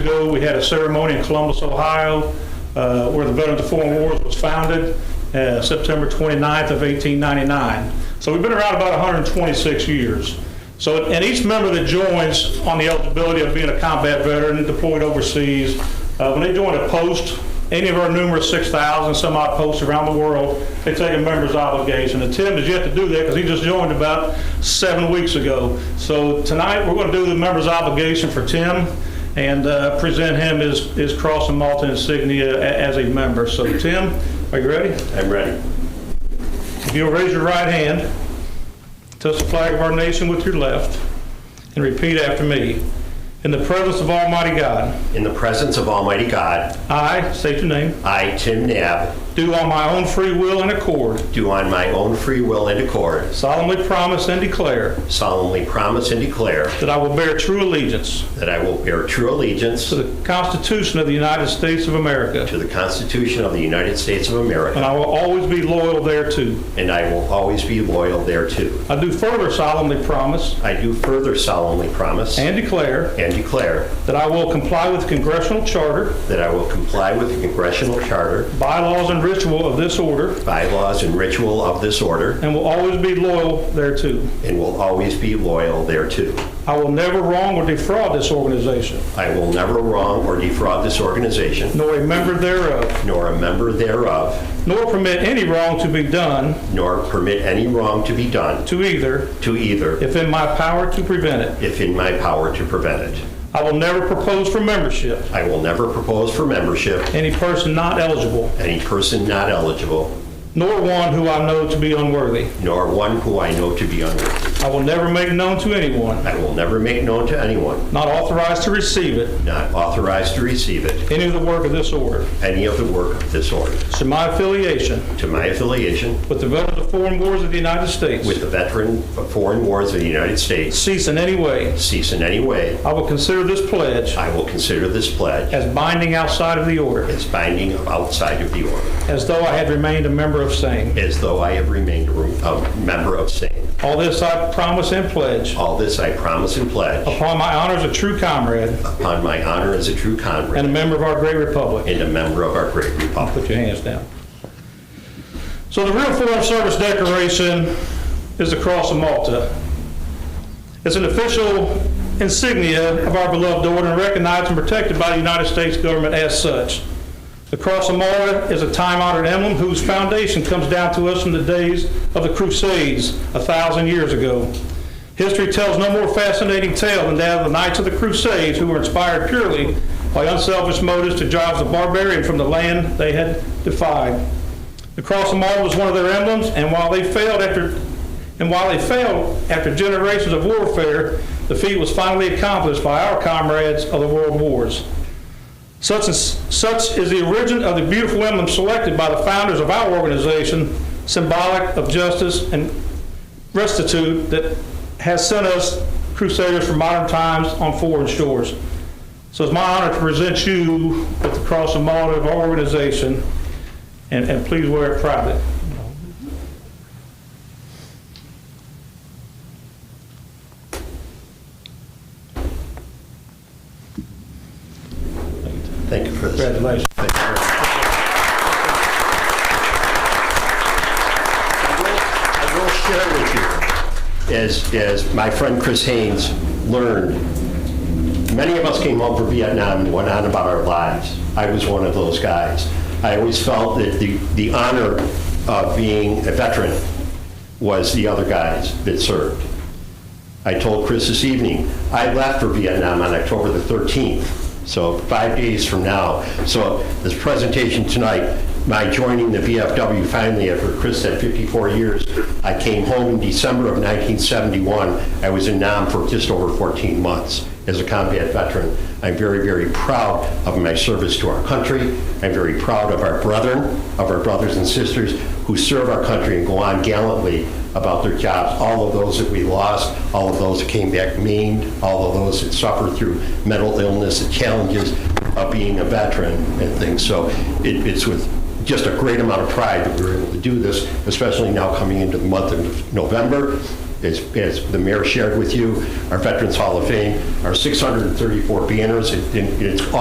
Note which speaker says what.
Speaker 1: ago, we had a ceremony in Columbus, Ohio, uh, where the Veterans of Foreign Wars was founded, uh, September 29th of 1899. So we've been around about 126 years. So, and each member that joins on the eligibility of being a combat veteran deployed overseas, uh, when they join a post, any of our numerous 6,000 some odd posts around the world, they take a member's obligation. And Tim is yet to do that because he just joined about seven weeks ago. So tonight, we're going to do the member's obligation for Tim and uh, present him his, his cross and Malta insignia a- as a member. So Tim, are you ready?
Speaker 2: I'm ready.
Speaker 1: If you'll raise your right hand, touch the flag of our nation with your left, and repeat after me. In the presence of Almighty God,
Speaker 2: In the presence of Almighty God,
Speaker 1: I, state your name,
Speaker 2: I, Tim Nab,
Speaker 1: do on my own free will and accord
Speaker 2: do on my own free will and accord
Speaker 1: solemnly promise and declare
Speaker 2: solemnly promise and declare
Speaker 1: that I will bear true allegiance
Speaker 2: that I will bear true allegiance
Speaker 1: to the Constitution of the United States of America,
Speaker 2: to the Constitution of the United States of
Speaker 1: and
Speaker 2: America,
Speaker 1: I will always be loyal thereto.
Speaker 2: and I will always be loyal thereto.
Speaker 1: I do further solemnly promise
Speaker 2: I do further solemnly promise
Speaker 1: and declare
Speaker 2: and declare
Speaker 1: That I will comply with congressional charter,
Speaker 2: that I will comply with the congressional charter,
Speaker 1: bylaws, and ritual of this order,
Speaker 2: bylaws, and ritual of this order,
Speaker 1: and will always be loyal thereto.
Speaker 2: and will always be loyal thereto.
Speaker 1: I will never wrong or defraud this organization,
Speaker 2: I will never wrong or defraud this organization,
Speaker 1: nor a member thereof,
Speaker 2: nor a member thereof,
Speaker 1: nor permit any wrong to be done
Speaker 2: nor permit any wrong to be done
Speaker 1: to either,
Speaker 2: to either
Speaker 1: if in my power to prevent it.
Speaker 2: if in my power to prevent it.
Speaker 1: I will never propose for membership
Speaker 2: I will never propose for membership
Speaker 1: any person not eligible,
Speaker 2: any person not eligible,
Speaker 1: nor one who I know to be unworthy.
Speaker 2: nor one who I know to be unworthy.
Speaker 1: I will never make known to anyone
Speaker 2: I will never make known to anyone
Speaker 1: not authorized to receive it
Speaker 2: not authorized to receive it
Speaker 1: any of the work of this order.
Speaker 2: any of the work of this order.
Speaker 1: So my affiliation
Speaker 2: To my affiliation
Speaker 1: with the Veterans of Foreign Wars of the United States.
Speaker 2: with the veteran of foreign wars of the United States
Speaker 1: cease in any way,
Speaker 2: cease in any way,
Speaker 1: I will consider this pledge
Speaker 2: I will consider this pledge
Speaker 1: as binding outside of the order,
Speaker 2: as binding outside of the order,
Speaker 1: as though I had remained a member of same.
Speaker 2: as though I have remained a room- a member of same.
Speaker 1: All this I promise and pledge
Speaker 2: All this I promise and pledge
Speaker 1: upon my honor as a true comrade
Speaker 2: upon my honor as a true
Speaker 1: and
Speaker 2: comrade
Speaker 1: a member of our great republic.
Speaker 2: and a member of our great republic.
Speaker 1: Put your hands down. So the real Foreign Service decoration is the Cross of Malta. It's an official insignia of our beloved order and recognized and protected by the United States government as such. The Cross of Malta is a time-honored emblem whose foundation comes down to us from the days of the Crusades a thousand years ago. History tells no more fascinating tale than that of the Knights of the Crusades who were inspired purely by unselfish motives to drive the barbarian from the land they had defied. The Cross of Malta was one of their emblems, and while they failed after, and while they failed after generations of warfare, the feat was finally accomplished by our comrades of the world wars. Such is, such is the origin of the beautiful emblem selected by the founders of our organization, symbolic of justice and restitute that has sent us crusaders from modern times on foreign shores. So it's my honor to present you with the Cross of Malta of our organization, and, and please wear it proudly.
Speaker 2: Thank you for this.
Speaker 1: Congratulations.
Speaker 2: Thank you very much. I will- I will share with you, as, as my friend Chris Haynes learned, many of us came home from Vietnam and went on about our lives. I was one of those guys. I always felt that the, the honor of being a veteran was the other guys that served. I told Chris this evening, I left for Vietnam on October the 13th, so five days from now. So this presentation tonight, my joining the VFW finally after Chris said 54 years, I came home in December of 1971. I was in Nam for just over 14 months as a combat veteran. I'm very, very proud of my service to our country. I'm very proud of our brethren, of our brothers and sisters who serve our country and go on gallantly about their jobs. All of those that we lost, all of those that came back maimed, all of those that suffered through mental illness, the challenges of being a veteran and things. So it, it's with just a great amount of pride that we were able to do this, especially now coming into the month of November. As, as the mayor shared with you, our Veterans Hall of Fame, our 634 banners, and and it's